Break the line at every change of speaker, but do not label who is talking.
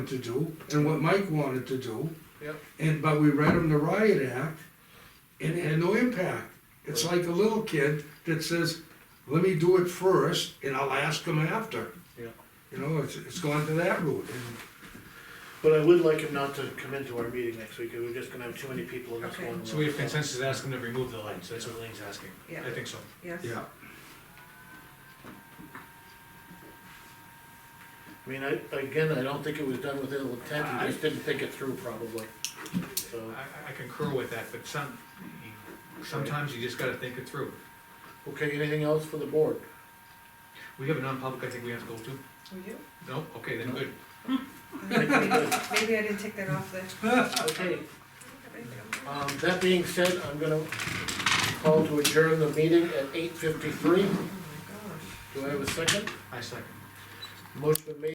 to do and what Mike wanted to do.
Yep.
And, but we read him the riot act and it had no impact. It's like a little kid that says, let me do it first and I'll ask him after.
Yeah.
You know, it's, it's gone to that route and
But I would like him not to come into our meeting next week, 'cause we're just gonna have too many people in this
Okay.
one room.
So we have consensus to ask them to remove the lights, that's what Lean's asking.
Yeah.
I think so.
Yes.
yeah.
I mean, I, again, I don't think it was done with ill intent, he just didn't think it through probably,
I,
so,
I- I concur with that, but some, you- sometimes you just gotta think it through.
okay, anything else for the board?
We have a non-public I think we have to go to.
We do?
No? Okay, then good.
Maybe I didn't take that off the.
Okay, um, that being said, I'm gonna call to adjourn the meeting at eight fifty-three,
Oh my gosh.
do I have a second?
I second.
Motion made